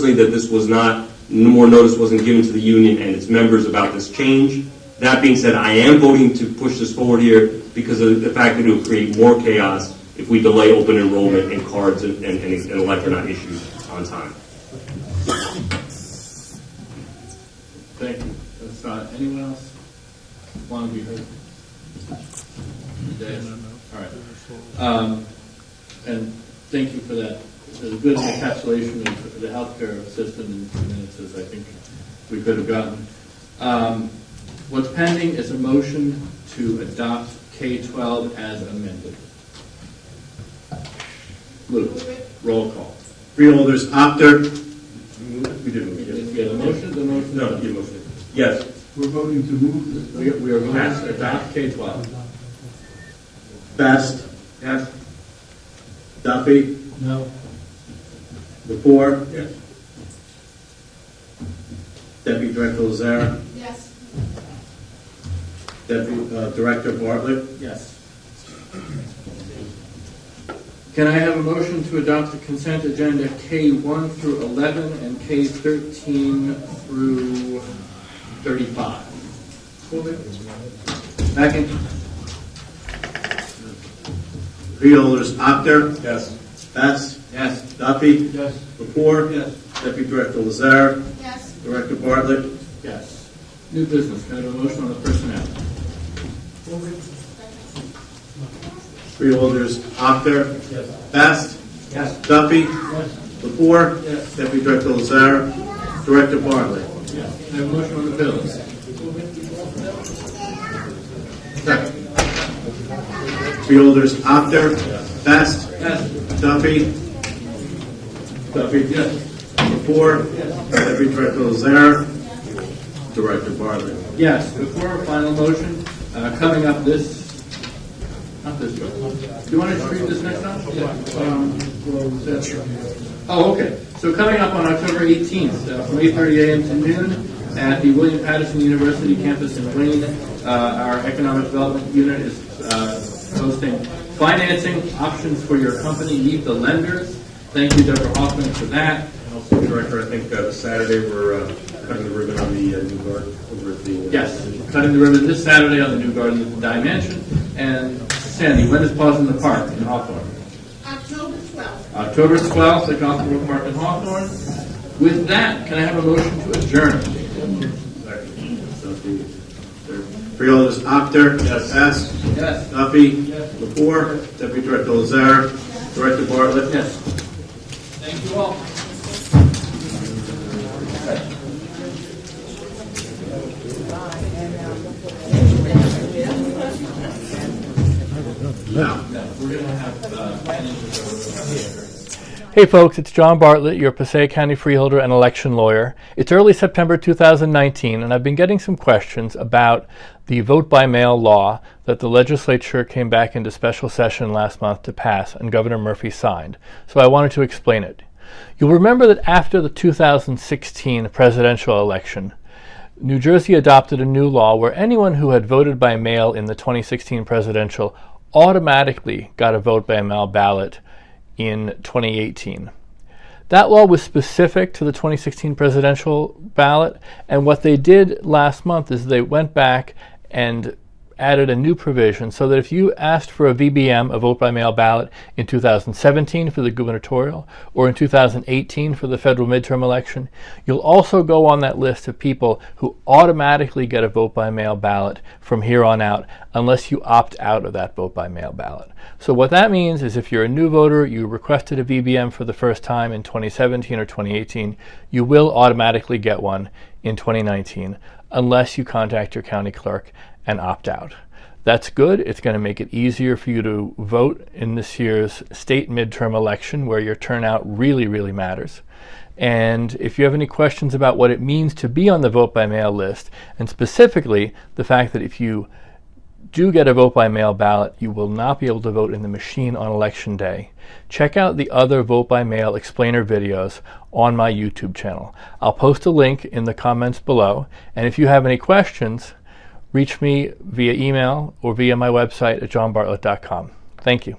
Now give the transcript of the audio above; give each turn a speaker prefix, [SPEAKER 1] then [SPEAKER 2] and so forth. [SPEAKER 1] personally that this was not, no more notice wasn't given to the union and its members about this change. That being said, I am voting to push this forward here because of the fact that it will create more chaos if we delay open enrollment and cards and, and, and elect are not issued on time.
[SPEAKER 2] Thank you. That's not, anyone else want to be heard? Yes? All right. Um, And thank you for that, the good encapsulation of the healthcare system in two minutes as I think we could have gotten. Um, What's pending is a motion to adopt K-12 as amended. Lou, roll call.
[SPEAKER 3] Freeholders, Apter. We didn't. we didn't.
[SPEAKER 2] If you have a motion, the motion.
[SPEAKER 1] No, you motion. Yes,
[SPEAKER 4] We're voting to move
[SPEAKER 2] We
[SPEAKER 4] this.
[SPEAKER 2] we are going to adopt K-12.
[SPEAKER 3] Best. Yes. Duffy.
[SPEAKER 4] No.
[SPEAKER 3] Lepore.
[SPEAKER 1] Yes.
[SPEAKER 3] Deputy Director Lazara.
[SPEAKER 5] Yes.
[SPEAKER 3] Deputy uh, Director Bartlett.
[SPEAKER 2] Yes. Can I have a motion to adopt the consent agenda K1 through 11 and K13 through 35? Second?
[SPEAKER 3] Freeholders, Apter.
[SPEAKER 1] yes,
[SPEAKER 3] Best.
[SPEAKER 2] Yes.
[SPEAKER 3] Duffy.
[SPEAKER 4] Yes.
[SPEAKER 3] Lepore.
[SPEAKER 2] Yes.
[SPEAKER 3] Deputy Director Lazara.
[SPEAKER 5] Yes.
[SPEAKER 3] Director Bartlett.
[SPEAKER 2] Yes. New business, can I have a motion on the personnel?
[SPEAKER 3] Freeholders, Apter. Yes. Best. Yes. Duffy. Yes. Lepore.
[SPEAKER 2] Yes.
[SPEAKER 3] Deputy Director Lazara. Director Bartlett.
[SPEAKER 2] Yes. Can I have a motion on the bills?
[SPEAKER 3] Freeholders, Apter. Best.
[SPEAKER 2] Yes.
[SPEAKER 3] Duffy. Duffy. Yes. Before. Deputy Director Lazare. Director Bartlett.
[SPEAKER 2] Yes, before our final motion, uh, coming up this, not this one. Do you want to just read this next one? Um, that's- Oh, okay. So coming up on October 18th, uh, from 8:30 a.m. to noon, at the William Patterson University campus in Wayne, uh, our Economic Development Unit is uh, hosting financing options for your company, meet the lenders. Thank you, Deborah Hoffman, for that.
[SPEAKER 1] Director, I think uh, Saturday we're uh, cutting the ribbon on the uh, new garden over at the. uh,
[SPEAKER 2] Yes, cutting the ribbon this Saturday on the new garden at the Dye Mansion. And Sandy, when is Paws in the Park in Hawthorne?
[SPEAKER 5] October 12th.
[SPEAKER 2] October 12th at Gothenburg Park in Hawthorne. With that, can I have a motion to adjourn?
[SPEAKER 3] Duffy. Freeholders, Apter. Yes. Best.
[SPEAKER 2] Yes.
[SPEAKER 3] Duffy. Yes. Before. Deputy Director Lazare. Director Bartlett.
[SPEAKER 2] Yes. Thank you all.
[SPEAKER 6] Hey folks, it's John Bartlett, your Passaic County freeholder and election lawyer. It's early September 2019, and I've been getting some questions about the vote by mail law that the legislature came back into special session last month to pass and Governor Murphy signed. So I wanted to explain it. You'll remember that after the 2016 presidential election, New Jersey adopted a new law where anyone who had voted by mail in the 2016 presidential automatically got a vote by mail ballot in 2018. That law was specific to the 2016 presidential ballot, and what they did last month is they went back and added a new provision so that if you asked for a VBM, a vote by mail ballot, in 2017 for the gubernatorial or in 2018 for the federal midterm election, you'll also go on that list of people who automatically get a vote by mail ballot from here on out unless you opt out of that vote by mail ballot. So what that means is if you're a new voter, you requested a VBM for the first time in 2017 or 2018, you will automatically get one in 2019 unless you contact your county clerk and opt out. That's good. It's going to make it easier for you to vote in this year's state midterm election where your turnout really, really matters. And if you have any questions about what it means to be on the vote by mail list, and specifically the fact that if you do get a vote by mail ballot, you will not be able to vote in the machine on election day. Check out the other vote by mail explainer videos on my YouTube channel. I'll post a link in the comments below. And if you have any questions, reach me via email or via my website at johnbartlett.com. Thank you.